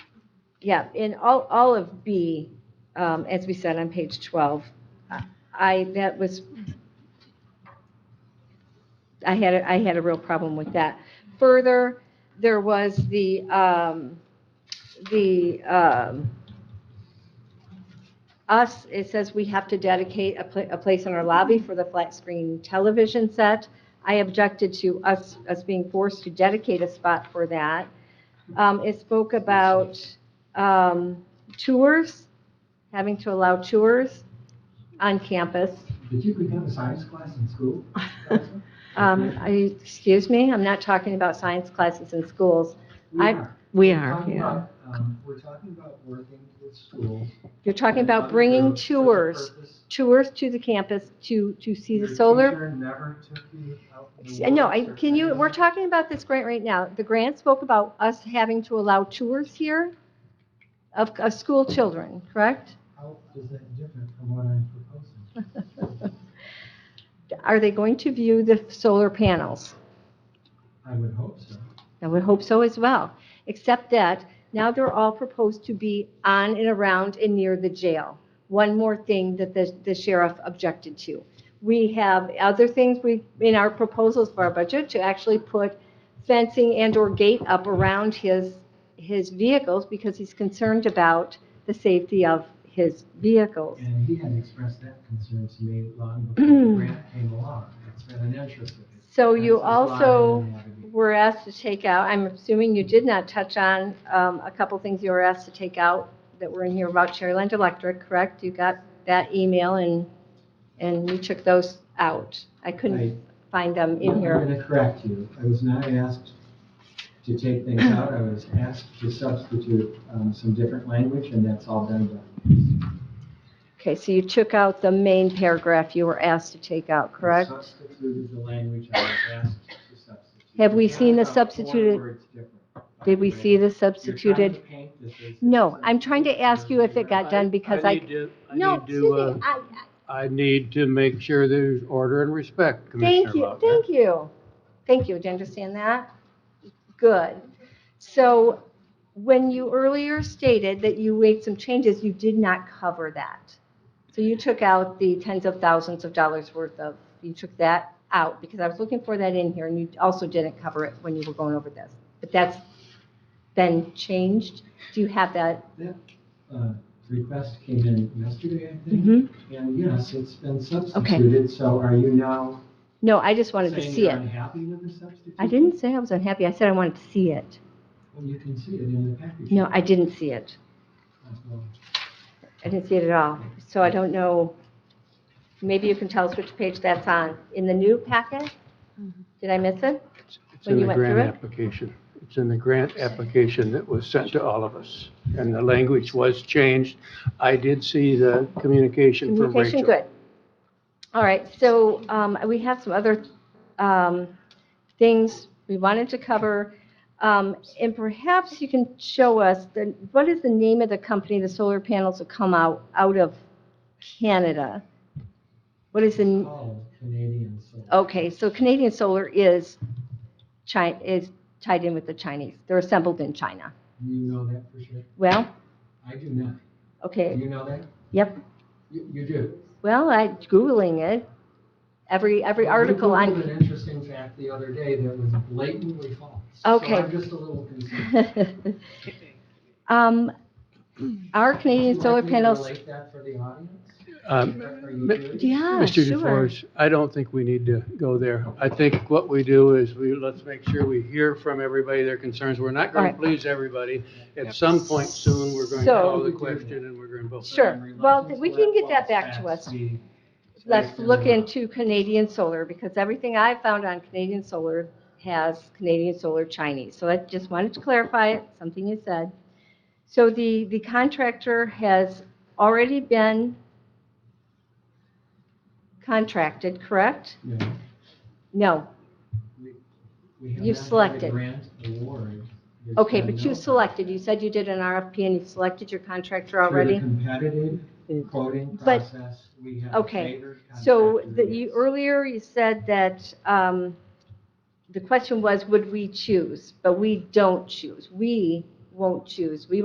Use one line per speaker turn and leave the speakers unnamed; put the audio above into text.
Yeah, in all, all of B, um, as we said on page 12, I- I, that was, I had, a- I had a real problem with that. Further, there was the, um, the, um, us, it says we have to dedicate a, pla- a place in our lobby for the flat screen television set. I objected to us, us being forced to dedicate a spot for that. Um, it spoke about, um, tours, having to allow tours on campus.
Did you could have a science class in school?
Um, I, excuse me, I'm not talking about science classes in schools.
We
I-
are.
We
We're
are,
talking
yeah.
about, um, We're talking about working with schools.
You're talking
We're
about bringing
about for the
tours,
purpose-
tours to the campus to, to see the
Your
solar.
teacher never took you out in the
No, I,
woods or
can you, we're
anything?
talking about this grant right now. The grant spoke about us having to allow tours here of, of school children, correct?
How is that different from what I'm proposing?
Are they going to view the solar panels?
I would hope so.
I would hope so as well, except that now they're all proposed to be on and around and near the jail. One more thing that the the sheriff objected to. We have other things we, in our proposals for our budget, to actually put fencing and/or gate up around his, his vehicles because he's concerned about the safety of his vehicles.
And he had expressed that concern to me long before the grant came along. It's been an interest of his.
So you
That's why I
also-
didn't have any-
were asked to take out, I'm assuming you did not touch on um, a couple things you were asked to take out that were in here about Cherryland Electric, correct? You got that email and, and you took those out. I
I-
couldn't find them in
I'm
here.
going to correct you. I was not asked to take things out. I was asked to substitute um, some different language, and that's all done. by-
Okay, so you took out the main paragraph you were asked to take out, correct?
I Substituted the language I was asked to substitute.
Have we seen the
About four
substituted-
words different.
Did we see the
You're trying to
substituted?
paint this as-
No, I'm trying to ask you if it got done because I,
need to- I
no,
need to,
excuse
uh,
me, I-
I need to make sure there's order and respect, Commissioner
Thank you,
Lockhart.
thank you. Thank you, do you understand that? Good. So when you earlier stated that you made some changes, you did not cover that. So you took out the tens of thousands of dollars worth of, you took that out because I was looking for that in here and you also didn't cover it when you were going over this. But that's been changed. Do you have that?
Uh, Request came in yesterday, I think,
Mhm.
and yes, it's been substituted. So are you now
No, I just wanted to
saying
see
you're
it.
unhappy with the substitution?
I didn't say I was unhappy. I said I wanted to see it.
Well, you can see it in the package.
No, I didn't see it.
Well,
I didn't see it at all, so I don't know, maybe you can tell us which page that's on, in the new packet? Did I miss it?
It's- It's
When
in
you
the
went through
grant
it?
application. It's in the grant application that was sent to all of us. And the language was changed. I did see the communication from Rachel.
Communication, good. All right, so um, we have some other um, things we wanted to cover, Um, and perhaps you can show us, the- what is the name of the company the solar panels will come out, out of Canada? What is the? n-
All Canadian solar.
Okay, so Canadian Solar is Chi, is tied in with the Chinese. They're assembled in China.
You know that for sure?
Well,
I do not. Do
okay,
you know that?
yep.
You, you do?
Well, I Googling it, every, every article
You
on,
Googled an interesting fact the other day that was blatantly false.
Okay.
So I'm just a little concerned.
um, our Canadian
Would you
solar
like me to
panels,
relate that for the audience?
Um,
Are
Ma-
you doing?
yeah,
Mr.
sure.
DeForest, I don't think we need to go there. I think what we do is we, let's make sure we hear from everybody their concerns. We're not going
Alright.
to please everybody. At some point soon, we're going to
So-
call the question and we're going to vote.
Sure. Well,
Reluctance
we
to
can
let
get that
false
back to
facts
us.
be
Let's
based in
look
the-
into Canadian Solar because everything I found on Canadian Solar has Canadian Solar Chinese. So I just wanted to clarify it, something you said. So the, the contractor has already been contracted, correct?
No,
No.
we
You've
have not had a
selected.
grant award. There's
Okay, but
been no-
you selected, you said you did an RFP and you selected your contractor
Through
already?
the competitive quoting
But-
process, we have
Okay,
favored
So
contractor
the, you,
bids.
earlier you said that, um, the question was, would we choose? But we don't choose. We won't choose. We